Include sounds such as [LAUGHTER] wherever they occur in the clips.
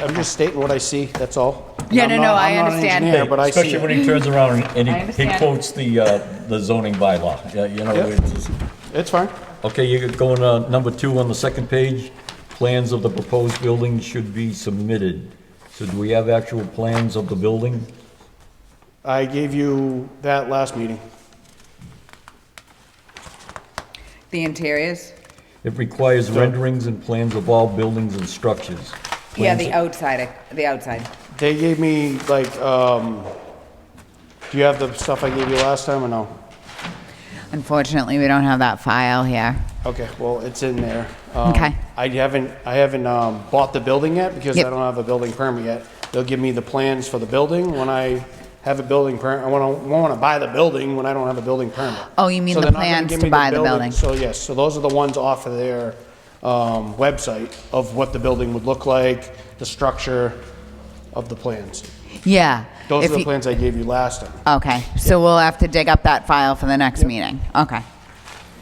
I'm just stating what I see, that's all. And Yeah, I'm no, not- no, I I'm not an understand. engineer, But I see Especially when it. he turns around and I he- he understand. quotes the, uh, the zoning bylaw, Yeah, you know. Yep. it's- It's fine. Okay, you're going, uh, number two on the second page, plans of the proposed building should be submitted. So do we have actual plans of the building? I gave you that last meeting. The interiors? It requires renderings and plans of all buildings and structures. Yeah, Plans- the outside, the outside. They gave me like, um, do you have the stuff I gave you last time or no? Unfortunately, we don't have that file here. Okay, well, it's in there. Um, Okay. I haven't, I haven't um, bought the building yet because I Yep. don't have a building permit yet. They'll give me the plans for the building when I have a building permit. I want to, want to buy the building when I don't have a building permit. Oh, you mean So the they're not gonna plans give to me buy the building. So yes, so those are the ones off of their um, website of what the building would look like, the structure of the plans. Yeah. Those if are the you- plans I gave you last time. Okay, so we'll have to dig up that file for the next meeting. Okay.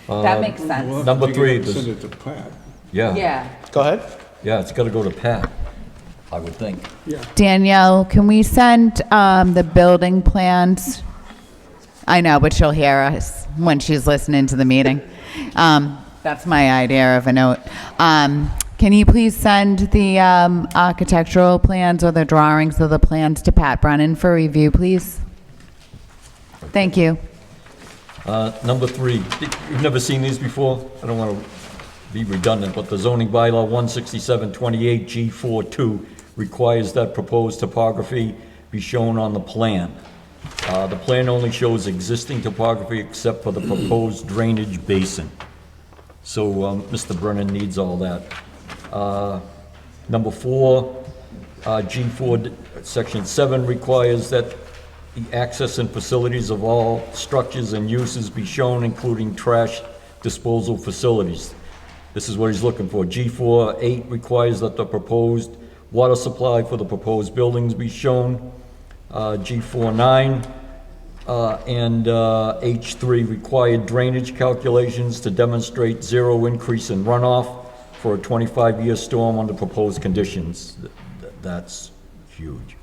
Um, That makes sense. Number three, this- Send it to Pat. Yeah, Yeah. Go ahead. yeah, it's gotta go to Pat, I would think. Danielle, can we send um, the building plans? I know, but she'll hear us when she's listening to the meeting. Um, That's my idea of a note. Um, Can you please send the um, architectural plans or the drawings of the plans to Pat Brennan for review, please? Thank you. Uh, Number three, you've never seen these before? I don't want to be redundant, but the zoning bylaw 16728G42 requires that proposed topography be shown on the plan. Uh, The plan only shows existing topography except for the proposed drainage basin. So um, Mr. Brennan needs all that. Uh, Number four, uh, G4, d- Section 7 requires that the access and facilities of all structures and uses be shown, including trash disposal facilities. This is what he's looking for. G4, 8 requires that the proposed water supply for the proposed buildings be shown. Uh, G4, 9 uh, and uh, H3, required drainage calculations to demonstrate zero increase in runoff for a 25-year storm under proposed conditions. Th- th- That's huge.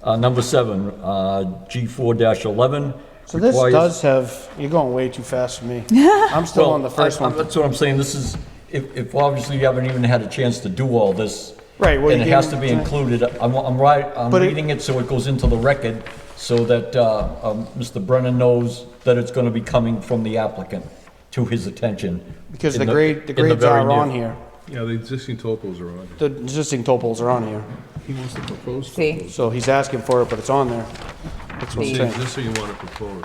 Uh, Number seven, uh, G4-11. So this requires- does have, you're going way too fast for [LAUGHS] me. I'm still Well, on the first I- I- one. That's what I'm saying, this is, if, if obviously you haven't even had a chance to do all this. Right, well, And you it has to gave- be included, I'm, I'm right, I'm But it- reading it so it goes into the record, so that, uh, um, Mr. Brennan knows that it's gonna be coming from the applicant to his attention. Because in the grade, in the grades very are near- on here. Yeah, the existing topos are on. The existing topals are on here. He wants to propose See? topos. So he's asking for it, but it's on there. That's what I'm The saying. existing you want to propose.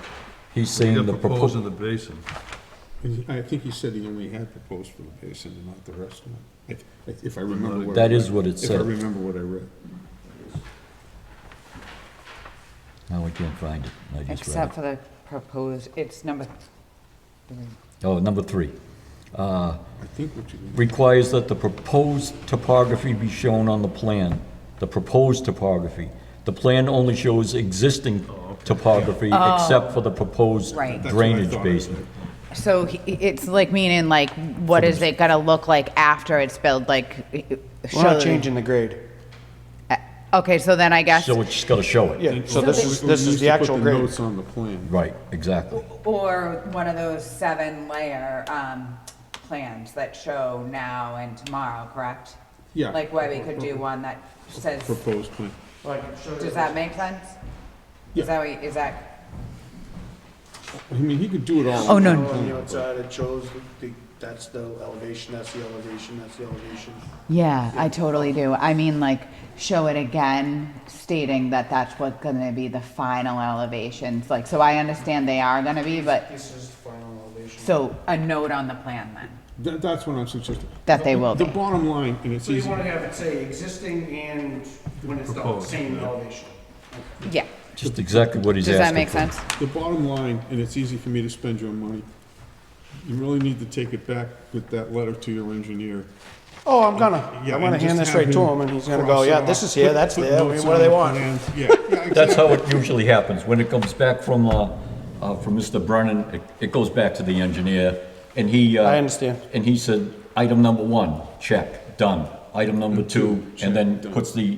He's You saying the got proposed in proposal, the basin. I think he said he only had proposed for the basin and not the rest of it, if- if I remember what. I That is read. what it If I said. remember what I read. no, I can't find it, I just read it. Except for the proposed, it's number, Oh, number three. I think what you, requires that the proposed topography be shown on the plan, the proposed topography. The plan only shows existing topography except for the proposed Oh. Right. That's what I drainage thought. basin. so he- it's like meaning like, what is it gonna look like after it's built, like? We're show- not changing the grade. Uh, Okay, so then I guess. So it's just gotta show it. Yeah, so this is, We- we this is used the to put actual grade. Notes on the plan. Right, exactly. Or one of those seven layer um, plans that show now and tomorrow, correct? Yeah. Like where we could do one that says, Proposed plan. does that make sense? Is that, what- is that, I mean, he could do it all. Oh, on no, one no. plan. it shows that's the elevation, that's the elevation, that's the elevation. yeah, I totally do. I mean, like, show it again stating that that's what's gonna be the final elevations, like, so I understand they are gonna be, but, This is the final elevation. so a note on the plan then, That, that's what I'm suggesting. that they will The be. bottom line, and it's So you easy. want to have it say existing and when it's the Proposed, same yeah. elevation. Yeah, Just exactly what he's does that asking make for. sense? The bottom line, and it's easy for me to spend your money, you really need to take it back with that letter to your engineer. Oh, I'm gonna, Yeah, I'm gonna and just hand this have right to him and he's gonna go, cross yeah, it this off. is here, Put- that's put there, I mean, notes what do on they the want? plans. Yeah, yeah, That's exactly. how it usually happens. When it comes back from, uh, uh, from Mr. Brennan, it, it goes back to the engineer, and he, uh... I understand. And he said, item number one, check, done. Item number two, and then puts the